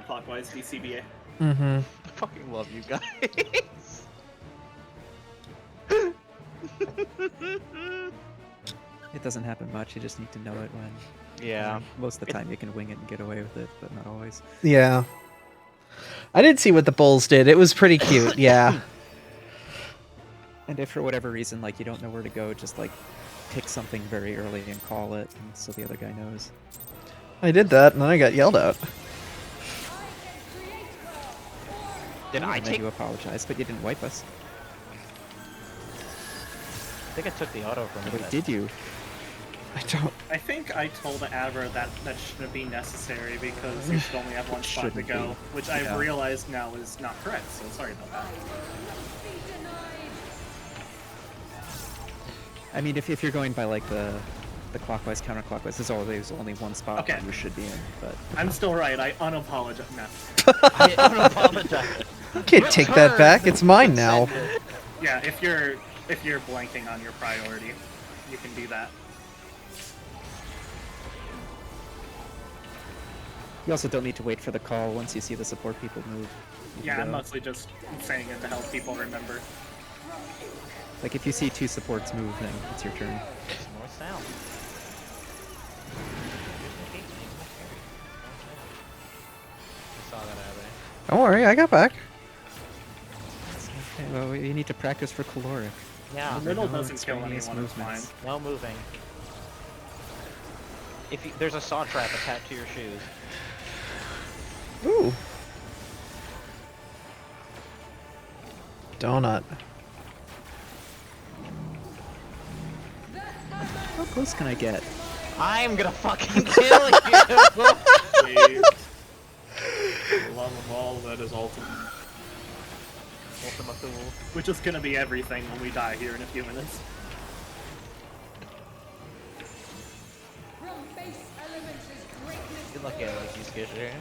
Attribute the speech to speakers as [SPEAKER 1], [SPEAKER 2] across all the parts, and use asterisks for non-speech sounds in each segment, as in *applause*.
[SPEAKER 1] counterclockwise DCBA.
[SPEAKER 2] Mm-hmm.
[SPEAKER 3] I fucking love you guys.
[SPEAKER 2] It doesn't happen much. You just need to know it when.
[SPEAKER 3] yeah.
[SPEAKER 2] Most of the time, you can wing it and get away with it, but not always.
[SPEAKER 4] Yeah. I did see what the bulls did. It was pretty cute. Yeah.
[SPEAKER 2] And if for whatever reason, like you don't know where to go, just like pick something very early and call it, and so the other guy knows.
[SPEAKER 4] I did that and then I got yelled at.
[SPEAKER 3] Did I
[SPEAKER 2] and then
[SPEAKER 3] take?
[SPEAKER 2] you apologize, but you didn't wipe us.
[SPEAKER 3] I think I took the auto from
[SPEAKER 2] Wait,
[SPEAKER 3] it.
[SPEAKER 2] did you?
[SPEAKER 4] I don't.
[SPEAKER 1] I think I told Adver that that shouldn't be necessary because you should only have one spot to
[SPEAKER 2] Shouldn't
[SPEAKER 1] go,
[SPEAKER 2] be.
[SPEAKER 1] which I
[SPEAKER 2] Yeah.
[SPEAKER 1] have realized now is not correct. So sorry about that.
[SPEAKER 2] I mean, if, if you're going by like the the clockwise counterclockwise, there's always only one spot
[SPEAKER 1] Okay.
[SPEAKER 2] that you should be in. But
[SPEAKER 1] I'm still right. I unapologize. No.
[SPEAKER 3] *laughs* I *laughs* unapologize.
[SPEAKER 4] You can't take that back. It's mine now.
[SPEAKER 1] Yeah, if you're if you're blanking on your priority, you can do that.
[SPEAKER 2] you also don't need to wait for the call once you see the support people move. You can
[SPEAKER 1] Yeah, I'm
[SPEAKER 2] go.
[SPEAKER 1] mostly just saying it to help people remember.
[SPEAKER 2] Like if you see two supports move, then it's your turn.
[SPEAKER 3] There's more sound. I saw that happening.
[SPEAKER 4] Don't worry, I got back.
[SPEAKER 2] Okay, well, you need to practice for caloric.
[SPEAKER 3] Yeah.
[SPEAKER 1] The riddle
[SPEAKER 2] no
[SPEAKER 1] doesn't kill
[SPEAKER 2] extraneous
[SPEAKER 1] anyone. It's fine.
[SPEAKER 2] movements.
[SPEAKER 3] No moving. If you, there's a saw trap attached to your shoes.
[SPEAKER 4] Ooh. Donut.
[SPEAKER 2] How close can I get?
[SPEAKER 3] I'm gonna fucking *laughs* kill you.
[SPEAKER 1] Please. Love of all that is ultimate. Ultima Thule. Which is gonna be everything when we die here in a few minutes.
[SPEAKER 3] Good luck, Alex. You skisher.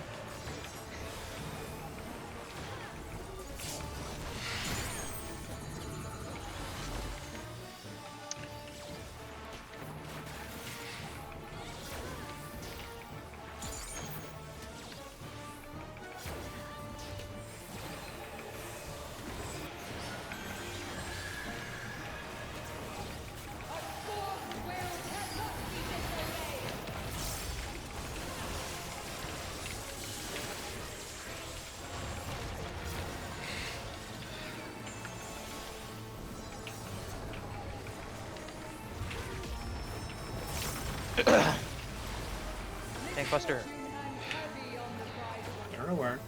[SPEAKER 3] Tank Buster.
[SPEAKER 1] You're aware.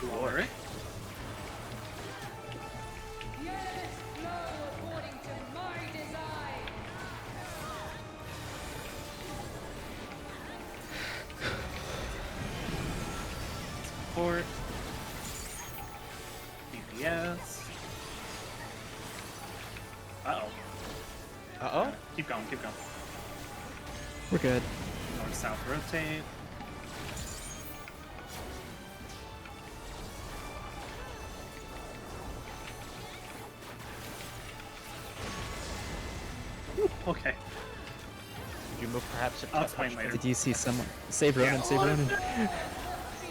[SPEAKER 1] Glory. Support. DPS. Uh oh.
[SPEAKER 3] Uh oh.
[SPEAKER 1] Keep going, keep going.
[SPEAKER 2] We're good.
[SPEAKER 1] North south rotate. Whew, Okay.
[SPEAKER 3] You move perhaps. a
[SPEAKER 1] I'll
[SPEAKER 3] touch
[SPEAKER 1] explain later.
[SPEAKER 2] Did you see someone? Save Ronan, save Ronan.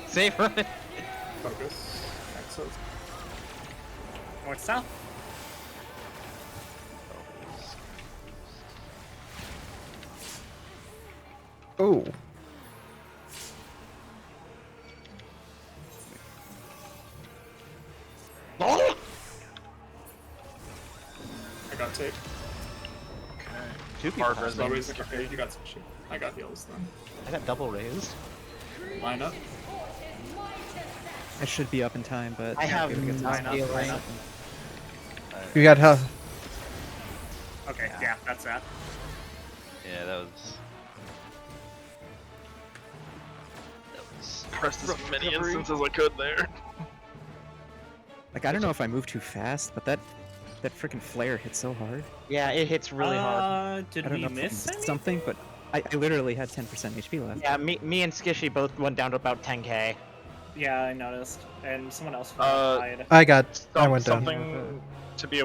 [SPEAKER 3] Safe *laughs* run.
[SPEAKER 1] Focus. Excellent. North south.
[SPEAKER 4] Ooh.
[SPEAKER 5] I got tape.
[SPEAKER 3] Two people.
[SPEAKER 5] Barbara's
[SPEAKER 3] possibly.
[SPEAKER 5] always like, okay, you got some shit. I got heals then.
[SPEAKER 3] I got double raised.
[SPEAKER 5] Line up.
[SPEAKER 2] I should be up in time, but
[SPEAKER 3] I have
[SPEAKER 2] Okay, we got
[SPEAKER 3] nine
[SPEAKER 2] time.
[SPEAKER 3] up, nine up.
[SPEAKER 4] You got how?
[SPEAKER 1] Okay, yeah, that's that.
[SPEAKER 6] Yeah, that was. That was.
[SPEAKER 5] Pressed as many instances as I could there.
[SPEAKER 2] Like I don't know if I move too fast, but that that freaking flare hit so hard.
[SPEAKER 3] Yeah, it hits really
[SPEAKER 1] uh,
[SPEAKER 3] hard.
[SPEAKER 2] I
[SPEAKER 1] Did
[SPEAKER 2] don't
[SPEAKER 1] we
[SPEAKER 2] know if I
[SPEAKER 1] miss
[SPEAKER 2] missed
[SPEAKER 1] any?
[SPEAKER 2] something, but I, I literally had 10% HP left.
[SPEAKER 3] Yeah, me, me and Skishy both went down to about 10k.
[SPEAKER 1] Yeah, I noticed. And someone else
[SPEAKER 5] Uh,
[SPEAKER 1] died.
[SPEAKER 4] I got. I went down.
[SPEAKER 5] Something to be